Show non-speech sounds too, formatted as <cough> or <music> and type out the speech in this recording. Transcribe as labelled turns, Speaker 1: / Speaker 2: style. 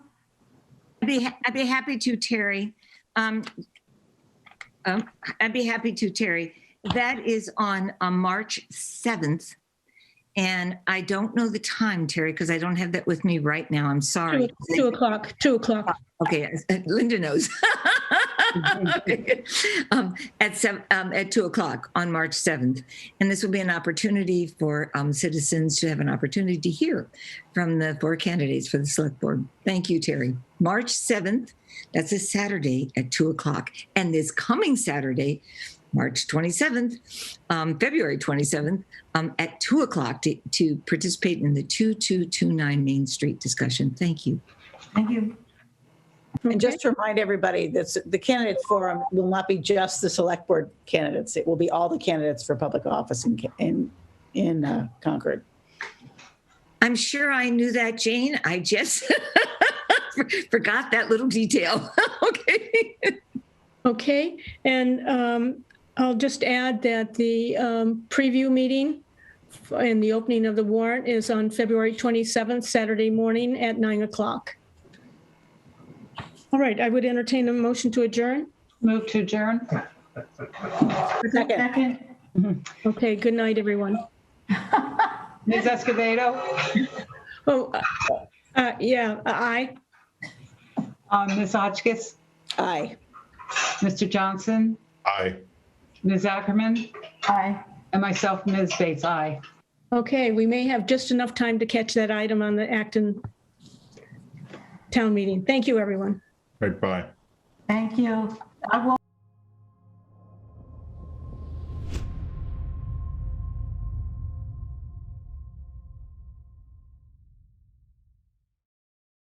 Speaker 1: be, ha- I'd be happy to, Terry. Um, um, I'd be happy to, Terry. That is on uh, March 7th. And I don't know the time, Terry, because I don't have that with me right now. I'm
Speaker 2: Two
Speaker 1: sorry.
Speaker 2: two o'clock, two o'clock.
Speaker 1: Okay, <laughs> uh, Linda knows. Um, At seven, um, at two o'clock on March seventh. And this will be an opportunity for, um, citizens to have an opportunity to hear from the four candidates for the select board. Thank you, Terry. March seventh, that's a Saturday at two o'clock. And this coming Saturday, March twenty-seventh, um, February twenty-seventh, um, at two o'clock to, to participate in the two-two-two-nine Main Street discussion. Thank you. Thank you.
Speaker 3: And just to remind everybody, that's, the candidate forum will not be just the select board candidates. It will be all the candidates for public office in, Ca- in, in uh, Concord.
Speaker 1: I'm sure I knew that, Jane. I just <laughs> forgot that little detail. <laughs> okay.
Speaker 2: Okay, and um, I'll just add that the um, preview meeting and the opening of the warrant is on February 27th, Saturday morning at 9 o'clock. All right, I would entertain a motion to adjourn.
Speaker 4: Move to adjourn.
Speaker 3: Second.
Speaker 4: Second.
Speaker 2: Okay, good night, everyone.
Speaker 4: Ms. Escobedo,
Speaker 2: Oh, uh, yeah, aye.
Speaker 4: uh, Ms. Hotchkiss,
Speaker 3: Aye.
Speaker 4: Mr. Johnson,
Speaker 5: Aye.
Speaker 4: Ms. Ackerman. Aye. And myself, Ms. Bates, aye.
Speaker 2: Okay, we may have just enough time to catch that item on the Acton town meeting. Thank you, everyone.
Speaker 5: Right, bye.
Speaker 6: Thank you. I will